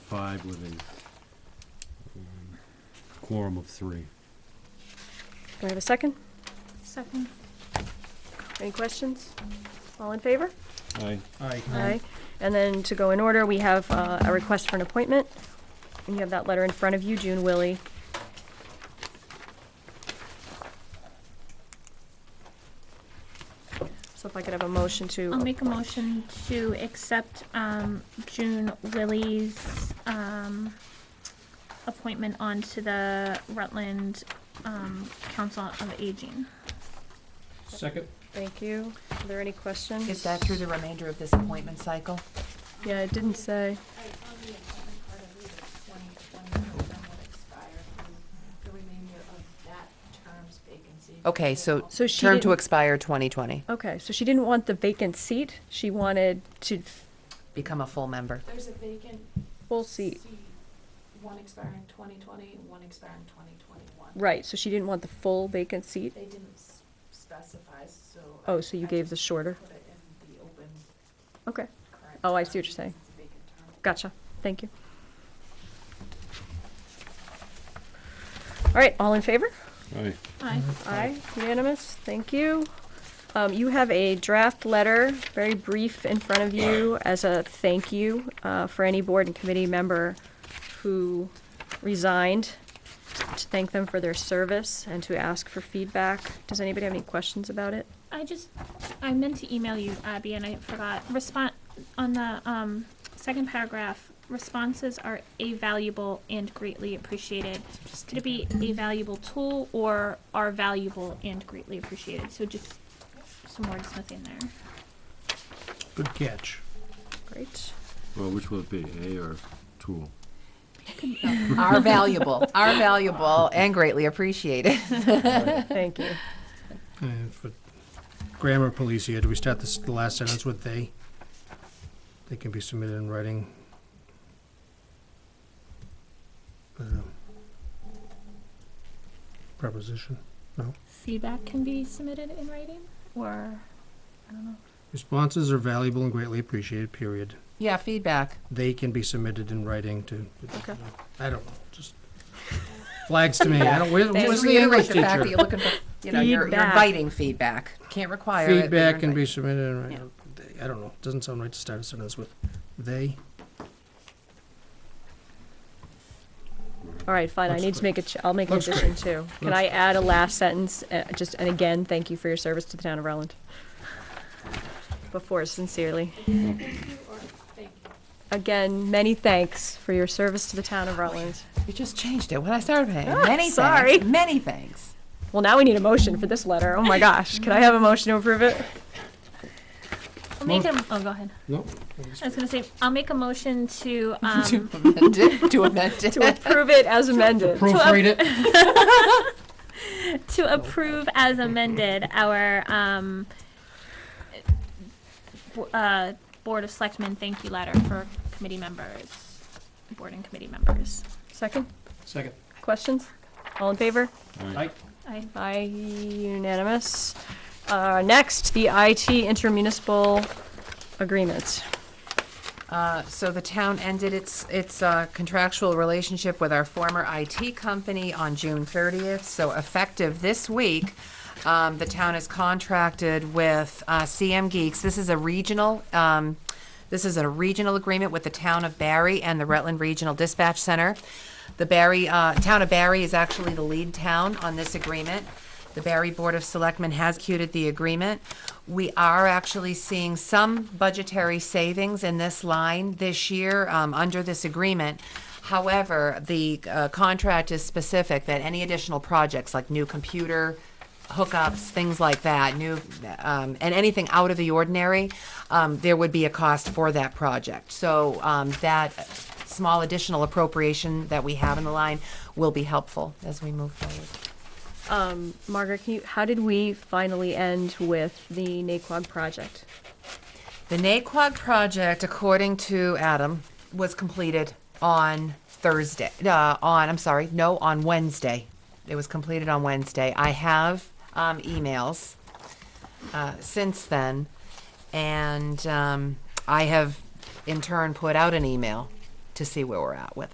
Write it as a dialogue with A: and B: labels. A: five with a um, quorum of three.
B: Do I have a second?
C: Second.
B: Any questions? All in favor?
A: Aye.
D: Aye.
B: And then to go in order, we have uh, a request for an appointment. And you have that letter in front of you, June Willie. So if I could have a motion to.
C: I'll make a motion to accept um, June Willie's um, appointment onto the Rutland um, Council of Aging.
D: Second?
B: Thank you. Are there any questions?
E: Is that through the remainder of this appointment cycle?
B: Yeah, it didn't say.
E: Okay, so
B: So she
E: term to
B: didn't-
E: expire 2020,
B: Okay, so she didn't want the vacant seat. She wanted to
E: become a full member.
F: There's a vacant
B: full seat.
F: One expiring 2020 and one expiring 2021.
B: Right, so she didn't want the full vacant seat.
F: They didn't s- specify, so.
B: Oh,
F: I-
B: so you
F: I
B: gave the
F: just
B: shorter.
F: Put it in the open
B: Okay,
F: current.
B: Oh, I see what
F: term
B: you're saying.
F: since it's a vacant term.
B: gotcha. Thank you. All right, all in favor?
A: Aye.
C: Aye.
B: Aye, unanimous, thank you. Um, you have a draft letter, very brief, in front of you as a thank you, uh, for any board and committee member who resigned, to thank them for their service and to ask for feedback. Does anybody have any questions about it?
C: I just, I meant to email you, Abby, and I forgot. Respond, on the um, second paragraph, responses are a valuable and greatly appreciated. Could it be a valuable tool or are valuable and greatly appreciated? So just some wordsmithing there.
D: Good catch.
B: Great.
A: Well, which will it be, A or tool?
E: Are valuable, are valuable, and greatly appreciated.
B: Thank you.
D: And for grammar police here, do we start this, the last sentence with they? They can be submitted in writing. I don't know. Preposition.
C: Feedback can be submitted in writing or, I don't know.
D: Responses are valuable and greatly appreciated, period.
E: Yeah, feedback.
D: They can be submitted in writing to,
B: Okay.
D: I don't know, just flags to me. I don't, where-
E: Just
D: where's the
E: reiterate
D: English
E: the fact that
D: teacher?
E: you're looking for, you know, you're you're
B: Feedback.
E: inviting feedback. Can't require it. but
D: Feedback
E: you're
D: can be
E: inviting-
D: submitted in writing. They- I don't know, doesn't sound right to start a sentence with they.
B: All right, fine, I
D: Looks
B: need to
D: great.
B: make a, ch- I'll make an
D: Looks
B: addition too. Can
D: Looks
B: I add a last sentence, uh, just, and again, thank you for your service to the town of Rutland? Before sincerely. Again, many thanks for your service to the town of Rutland.
E: You just changed it when I started paying. Many
B: sorry.
E: thanks, many thanks.
B: Well, now we need a motion for this letter, oh my gosh, can I have a motion to approve it?
C: I'll make a, oh, go ahead.
D: Nope.
C: I was gonna say, I'll make a motion to, um,
E: To amend it, to amend
B: To
E: it.
B: approve it as amended.
D: Proofread it.
C: to approve as amended our, um, bo- uh, Board of Selectmen thank you letter for committee members, board and committee members.
B: Second,
D: Second.
B: questions? All in favor?
D: Aye.
C: I,
B: Aye, unanimous. Uh, next, the IT intermunicipal agreement.
E: Uh, So the town ended its, its uh, contractual relationship with our former IT company on June 30th. So effective this week, um, the town is contracted with uh, CM Geeks. This is a regional, um, this is a regional agreement with the town of Barry and the Rutland Regional Dispatch Center. The Barry, uh, town of Barry is actually the lead town on this agreement. The Barry Board of Selectmen has executed the agreement. We are actually seeing some budgetary savings in this line this year um, under this agreement. However, the uh, contract is specific that any additional projects like new computer hookups, things like that, new, um, and anything out of the ordinary, um, there would be a cost for that project. So um, that small additional appropriation that we have in the line will be helpful as we move forward.
B: Um, Margaret, can you, how did we finally end with the Naquag project?
E: The Naquag project, according to Adam, was completed on Thursday. Uh, on I'm sorry, no, on Wednesday. It was completed on Wednesday. I have um, emails uh, since then, and um, I have in turn put out an email to to see where we're at with it.